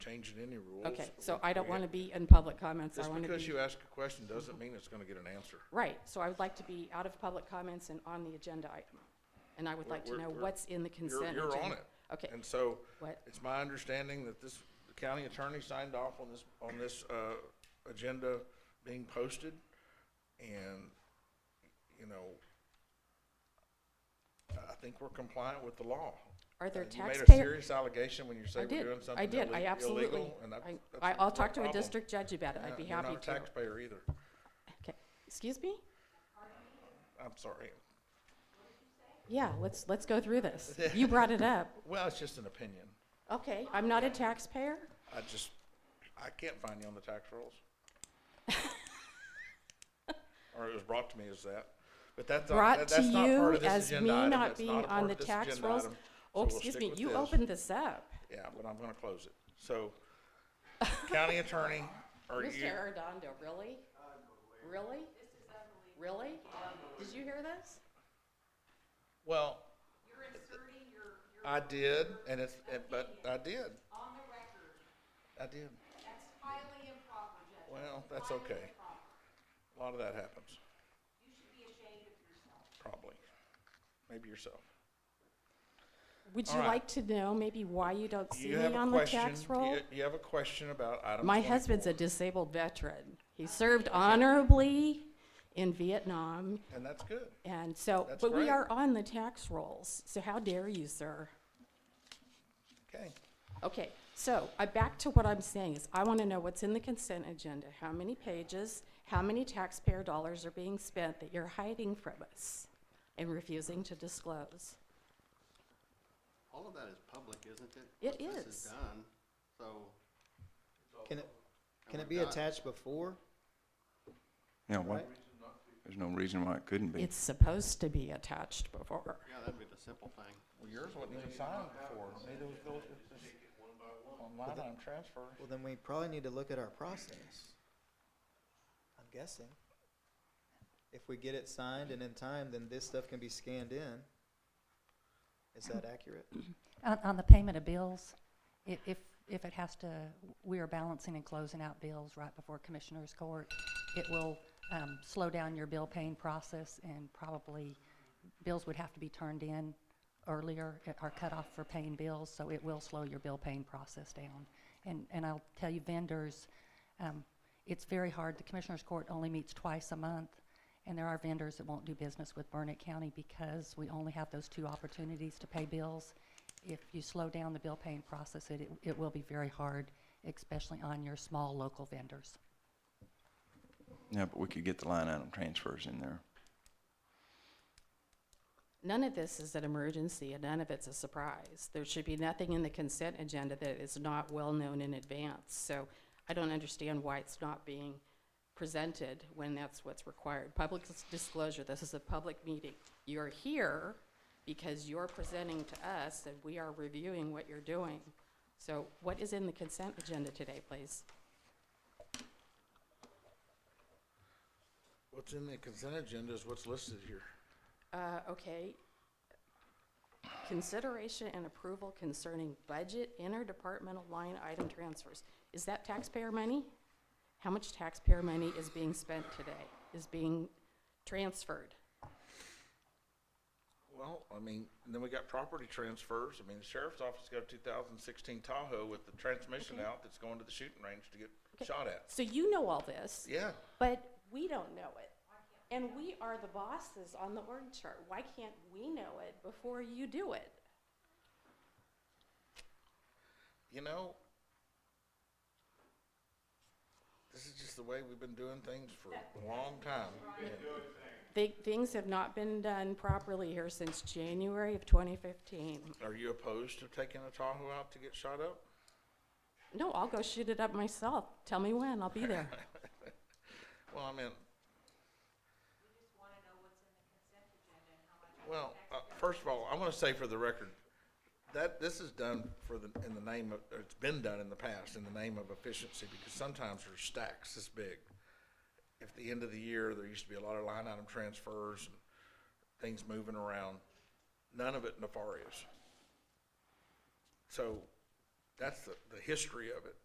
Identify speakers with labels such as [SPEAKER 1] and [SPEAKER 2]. [SPEAKER 1] changing any rules.
[SPEAKER 2] Okay, so I don't
[SPEAKER 1] We-
[SPEAKER 2] want to be in public comments. I
[SPEAKER 1] Just
[SPEAKER 2] want to
[SPEAKER 1] because
[SPEAKER 2] be,
[SPEAKER 1] you ask a question doesn't mean it's gonna get an answer.
[SPEAKER 2] right, so I would like to be out of public comments and on the agenda item. And I would
[SPEAKER 1] We're-
[SPEAKER 2] like to
[SPEAKER 1] we're-
[SPEAKER 2] know
[SPEAKER 1] we're-
[SPEAKER 2] what's in the
[SPEAKER 1] You're,
[SPEAKER 2] consent agenda.
[SPEAKER 1] you're on it.
[SPEAKER 2] Okay,
[SPEAKER 1] And so,
[SPEAKER 2] what,
[SPEAKER 1] it's my understanding that this, the county attorney signed off on this, on this, uh, agenda being posted. And, you know, I think we're compliant with the law.
[SPEAKER 2] are there
[SPEAKER 1] You made a
[SPEAKER 2] taxpayer?
[SPEAKER 1] serious allegation when you
[SPEAKER 2] I
[SPEAKER 1] say we're
[SPEAKER 2] did,
[SPEAKER 1] doing something
[SPEAKER 2] I did, I
[SPEAKER 1] ille-
[SPEAKER 2] absolutely.
[SPEAKER 1] illegal, and that-
[SPEAKER 2] I-
[SPEAKER 1] that's
[SPEAKER 2] I, I'll
[SPEAKER 1] no
[SPEAKER 2] talk to a
[SPEAKER 1] problem.
[SPEAKER 2] district judge about it. I'd be
[SPEAKER 1] Yeah,
[SPEAKER 2] happy
[SPEAKER 1] You're not a
[SPEAKER 2] to.
[SPEAKER 1] taxpayer either.
[SPEAKER 2] Okay, excuse me?
[SPEAKER 1] I'm sorry.
[SPEAKER 2] Yeah, let's, let's go through this. You brought it up.
[SPEAKER 1] Well, it's just an opinion.
[SPEAKER 2] Okay, I'm not a taxpayer?
[SPEAKER 1] I just, I can't find you on the tax rolls. Or it was brought to me as that, but that's, not-
[SPEAKER 2] Brought
[SPEAKER 1] that-
[SPEAKER 2] to
[SPEAKER 1] that's not part
[SPEAKER 2] you
[SPEAKER 1] of this
[SPEAKER 2] as me
[SPEAKER 1] agenda item.
[SPEAKER 2] not
[SPEAKER 1] It's
[SPEAKER 2] being
[SPEAKER 1] not a part
[SPEAKER 2] on
[SPEAKER 1] of
[SPEAKER 2] the
[SPEAKER 1] this
[SPEAKER 2] tax
[SPEAKER 1] agenda
[SPEAKER 2] rolls.
[SPEAKER 1] item, so
[SPEAKER 2] Oh,
[SPEAKER 1] we'll
[SPEAKER 2] excuse
[SPEAKER 1] stick
[SPEAKER 2] me,
[SPEAKER 1] with
[SPEAKER 2] you
[SPEAKER 1] this.
[SPEAKER 2] opened this up.
[SPEAKER 1] Yeah, but I'm gonna close it. So, county attorney, are
[SPEAKER 2] Mr.
[SPEAKER 1] you,
[SPEAKER 2] Arredondo, really? Really? Really? Did you hear this?
[SPEAKER 1] well. I did, and it's, and- but I did,
[SPEAKER 3] on the record.
[SPEAKER 1] I did.
[SPEAKER 3] That's highly improper, Judge.
[SPEAKER 1] Well, that's
[SPEAKER 3] Highly
[SPEAKER 1] okay.
[SPEAKER 3] improper.
[SPEAKER 1] A lot of that happens,
[SPEAKER 3] You should be ashamed of yourself.
[SPEAKER 1] probably. Maybe yourself.
[SPEAKER 2] Would
[SPEAKER 1] All
[SPEAKER 2] you
[SPEAKER 1] right.
[SPEAKER 2] like to know maybe why you don't see
[SPEAKER 1] You
[SPEAKER 2] me
[SPEAKER 1] have a
[SPEAKER 2] on the
[SPEAKER 1] question,
[SPEAKER 2] tax roll?
[SPEAKER 1] you, you have a question about item
[SPEAKER 2] My husband's
[SPEAKER 1] 24.
[SPEAKER 2] a disabled veteran. He served honorably in Vietnam,
[SPEAKER 1] And that's good.
[SPEAKER 2] and so,
[SPEAKER 1] That's
[SPEAKER 2] but we
[SPEAKER 1] great.
[SPEAKER 2] are on the tax rolls, so how dare you, sir?
[SPEAKER 1] Okay.
[SPEAKER 2] Okay, so I, back to what I'm saying is, I want to know what's in the consent agenda, how many pages, how many taxpayer dollars are being spent that you're hiding from us and refusing to disclose.
[SPEAKER 4] All of that is public, isn't it?
[SPEAKER 2] It
[SPEAKER 4] Once This
[SPEAKER 2] is.
[SPEAKER 4] is done, so.
[SPEAKER 5] Can it, can
[SPEAKER 4] we're
[SPEAKER 5] it be
[SPEAKER 4] done.
[SPEAKER 5] attached before?
[SPEAKER 6] Yeah, why,
[SPEAKER 5] Right.
[SPEAKER 6] there's no reason why it couldn't be.
[SPEAKER 2] It's supposed to be attached before.
[SPEAKER 4] Yeah, that'd be the simple thing.
[SPEAKER 1] Well, yours wasn't even signed before. Neither was Bill. Online item transfer.
[SPEAKER 5] Well, then we probably need to look at our process. I'm guessing. If we get it signed and in time, then this stuff can be scanned in. Is that accurate?
[SPEAKER 7] On, on the payment of bills, i- if, if it has to, we are balancing and closing out bills right before Commissioners Court. It will, um, slow down your bill paying process and probably bills would have to be turned in earlier, uh, our cutoff for paying bills, so it will slow your bill paying process down. And, and I'll tell you vendors, um, it's very hard. The Commissioners Court only meets twice a month. And there are vendors that won't do business with Burnett County because we only have those two opportunities to pay bills. If you slow down the bill paying process, it, it- it will be very hard, especially on your small local vendors.
[SPEAKER 6] Yeah, but we could get the line item transfers in there.
[SPEAKER 2] None of this is an emergency and none of it's a surprise. There should be nothing in the consent agenda that is not well-known in advance. So I don't understand why it's not being presented when that's what's required. Public dis- disclosure, this is a public meeting. You're here because you're presenting to us and we are reviewing what you're doing. So what is in the consent agenda today, please?
[SPEAKER 1] What's in the consent agenda is what's listed here.
[SPEAKER 2] Uh, okay. Consideration and approval concerning budget interdepartmental line item transfers. Is that taxpayer money? How much taxpayer money is being spent today, is being transferred?
[SPEAKER 1] Well, I mean, and then we got property transfers. I mean, the sheriff's office got a two thousand sixteen Tahoe with the transmission out that's going to the shooting range to get shot at.
[SPEAKER 2] So you know all this,
[SPEAKER 1] Yeah,
[SPEAKER 2] but we don't know it. And we are the bosses on the org chart. Why can't we know it before you do it?
[SPEAKER 1] you know, this is just the way we've been doing things for a long time.
[SPEAKER 2] Thi- Things have not been done properly here since January of 2015.
[SPEAKER 1] Are you opposed to taking a Tahoe out to get shot up?
[SPEAKER 2] No, I'll go shoot it up myself. Tell me when, I'll be there.
[SPEAKER 1] Well, I mean,
[SPEAKER 3] We just want to know what's in the consent agenda and how much.
[SPEAKER 1] Well, uh, first of all, I want to say for the record, that this is done for the, in the name of, or it's been done in the past in the name of efficiency because sometimes there's stacks this big. At the end of the year, there used to be a lot of line item transfers and things moving around, none of it nefarious. So That's the, the history of it.